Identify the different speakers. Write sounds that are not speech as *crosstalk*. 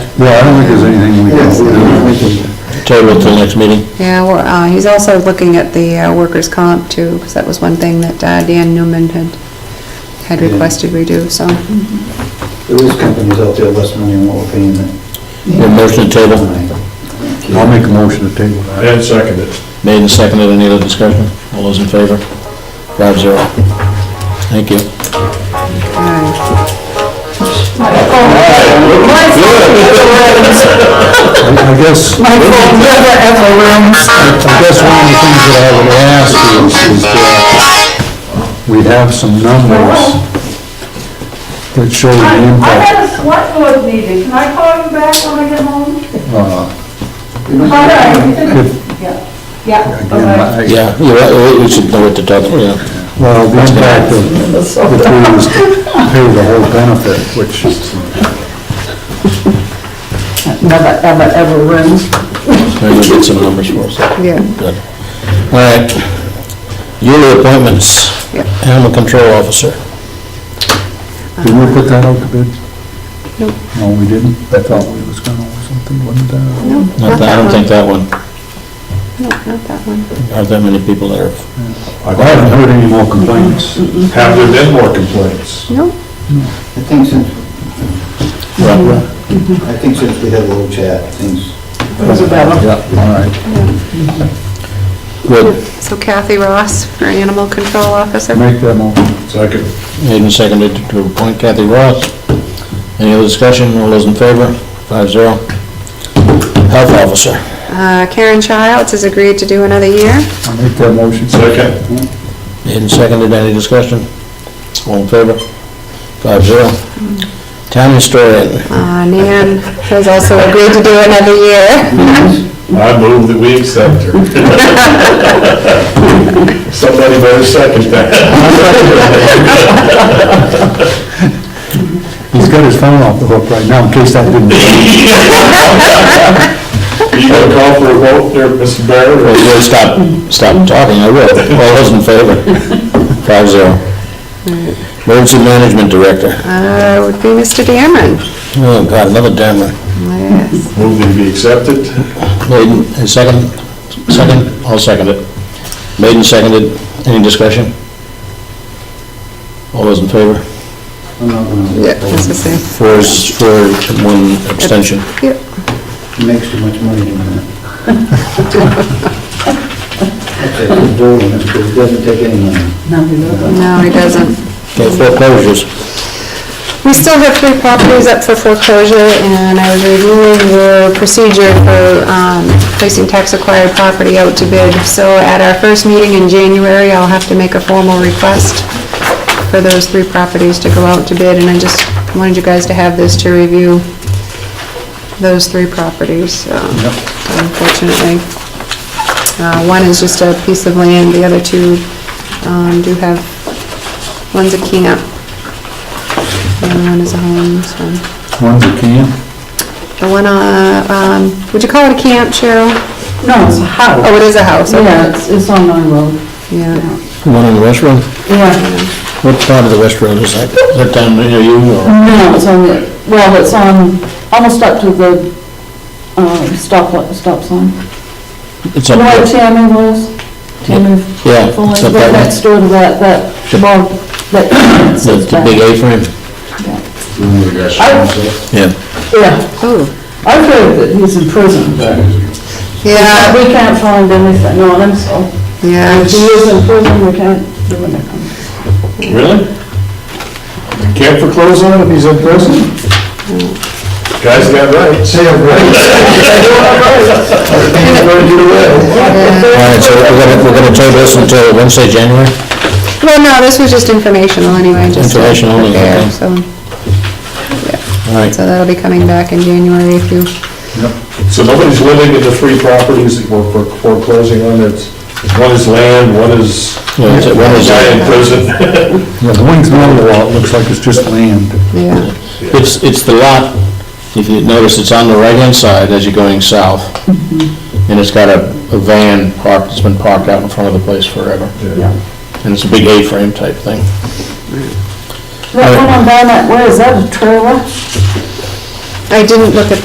Speaker 1: Yeah, I don't think there's anything we can do.
Speaker 2: Table till next meeting?
Speaker 3: Yeah, we're, uh, he's also looking at the uh, workers' comp too, because that was one thing that uh, Dan Newman had, had
Speaker 1: Yeah.
Speaker 3: requested we do, so.
Speaker 1: There is companies out there less money than what we're paying them.
Speaker 2: Your motion to table,
Speaker 1: I'll make a motion to table that.
Speaker 4: And second it.
Speaker 2: made and seconded, any other discussion? All those in favor? Five zero. Thank you.
Speaker 3: all right.
Speaker 1: I I guess, I guess one of the things that I would ask is, is that we have some numbers that show the
Speaker 5: I
Speaker 1: impact.
Speaker 5: had a select board meeting, can I call you back when I get home?
Speaker 1: uh,
Speaker 5: All right.
Speaker 1: if-
Speaker 5: Yeah,
Speaker 1: again,
Speaker 5: okay.
Speaker 1: I-
Speaker 2: Yeah, you're right, we should know what to talk, yeah.
Speaker 1: Well, the impact of, if we was to pay the whole benefit, which is
Speaker 6: never, ever, ever room.
Speaker 2: Maybe we'll get some numbers for us.
Speaker 3: Yeah,
Speaker 2: Good. All right. Yearly appointments,
Speaker 3: Yep.
Speaker 2: animal control officer.
Speaker 1: Did we put that out to bid?
Speaker 3: Nope.
Speaker 1: No, we didn't? I thought we was gonna or something, wasn't that?
Speaker 3: no,
Speaker 2: Not
Speaker 3: not
Speaker 2: that- I
Speaker 3: that
Speaker 2: don't think
Speaker 3: one.
Speaker 2: that one,
Speaker 3: No, not that one.
Speaker 2: aren't that many people that are,
Speaker 1: I haven't heard any more complaints.
Speaker 4: Have there been more complaints?
Speaker 3: No,
Speaker 7: I think since,
Speaker 3: Mm-hmm.
Speaker 2: Right.
Speaker 7: I think since we had a little chat, things,
Speaker 6: Isabella.
Speaker 1: Yeah, all right.
Speaker 2: good,
Speaker 3: so Kathy Ross, our animal control officer.
Speaker 1: Make that motion.
Speaker 4: Second.
Speaker 2: made and seconded to appoint Kathy Ross. Any other discussion, all those in favor? Five zero. Health officer.
Speaker 3: Uh, Karen Childs has agreed to do another year.
Speaker 1: I make that motion.
Speaker 4: Second.
Speaker 2: Made and seconded, any discussion? All in favor? Five zero. Town historian,
Speaker 3: Uh, Nan has also agreed to do another year. *laughs*
Speaker 4: I move that we accept her. *laughs* Somebody better second that. *laughs*
Speaker 1: He's got his phone off the hook right now, in case that didn't.
Speaker 4: Are you gonna call for a vote there, Mr. Barrett?
Speaker 2: Well, you'll stop, stop talking, I will. All those in favor? Five zero. Emergency management director.
Speaker 3: Uh, would be Mr. Dameron.
Speaker 2: Oh, God, another dammer.
Speaker 3: Yes.
Speaker 4: Move that we accept it.
Speaker 2: Made and second, second, I'll second it. Made and seconded, any discussion? All those in favor?
Speaker 7: I'm not gonna
Speaker 3: Yeah, that's the same.
Speaker 2: Four, is- four, one abstention.
Speaker 3: Yep.
Speaker 7: it makes too much money doing that. Okay, we'll vote on it, because it doesn't take any money.
Speaker 3: No, he doesn't.
Speaker 2: Okay, foreclosures.
Speaker 3: We still have three properties up for foreclosure, and I was reviewing the procedure for um, placing tax-acquired property out to bid. So at our first meeting in January, I'll have to make a formal request for those three properties to go out to bid, and I just wanted you guys to have this to review those three properties, um, unfortunately. Uh, One is just a piece of land, the other two um, do have, one's a camp, the other one is a home, so.
Speaker 1: One's a can.
Speaker 3: The one, uh, um, would you call it a camp, Cheryl?
Speaker 6: No, it's a house.
Speaker 3: Oh, it is a house,
Speaker 6: Yeah,
Speaker 3: okay.
Speaker 6: it's, it's on my road.
Speaker 3: Yeah.
Speaker 2: One in the West Road?
Speaker 6: Yeah,
Speaker 2: What part of the West Road is that? Is that down near you or?
Speaker 6: no, it's on the, well, it's on, almost up to the, um, stop, li- stop sign.
Speaker 2: It's
Speaker 6: You
Speaker 2: up
Speaker 6: know
Speaker 2: there.
Speaker 6: where Tammy was? Tammy
Speaker 2: Yeah,
Speaker 6: Foley,
Speaker 2: it's up
Speaker 6: right
Speaker 2: there.
Speaker 6: next door to that, that, well,
Speaker 2: *coughs*
Speaker 6: that.
Speaker 2: The, the big A-frame? Yeah.
Speaker 6: Yeah,
Speaker 3: Oh,
Speaker 6: I've heard that he's in prison, but
Speaker 3: yeah,
Speaker 6: we can't find anything on him, so
Speaker 3: yeah.
Speaker 6: if he is in prison, we can't do anything.
Speaker 4: Really? Can't foreclose on him if he's in prison? Guy's got rights. They have *laughs* rights. Can't let you away.
Speaker 2: All right, so we're gonna, we're gonna table this until Wednesday, January?
Speaker 3: Well, no, this was just informational anyway, just. to
Speaker 2: Information only,
Speaker 3: prepare,
Speaker 2: okay.
Speaker 3: So,
Speaker 2: All right,
Speaker 3: so that'll be coming back in January if you,
Speaker 4: So nobody's living in the three properties that we're fore- foreclosing on, it's, one is land, one is
Speaker 2: Yeah, it's- one is-
Speaker 4: guy in prison. *laughs*
Speaker 1: Yeah, the wing's not a lot, looks like it's just land.
Speaker 3: yeah.
Speaker 2: it's, it's the lot, if you notice, it's on the right-hand side as you're going south. And it's got a, a van parked, it's been parked out in front of the place forever.
Speaker 4: Yeah.
Speaker 2: And it's a big A-frame type thing.
Speaker 6: That one on Barnett Way, is that a trailer?
Speaker 3: I didn't look at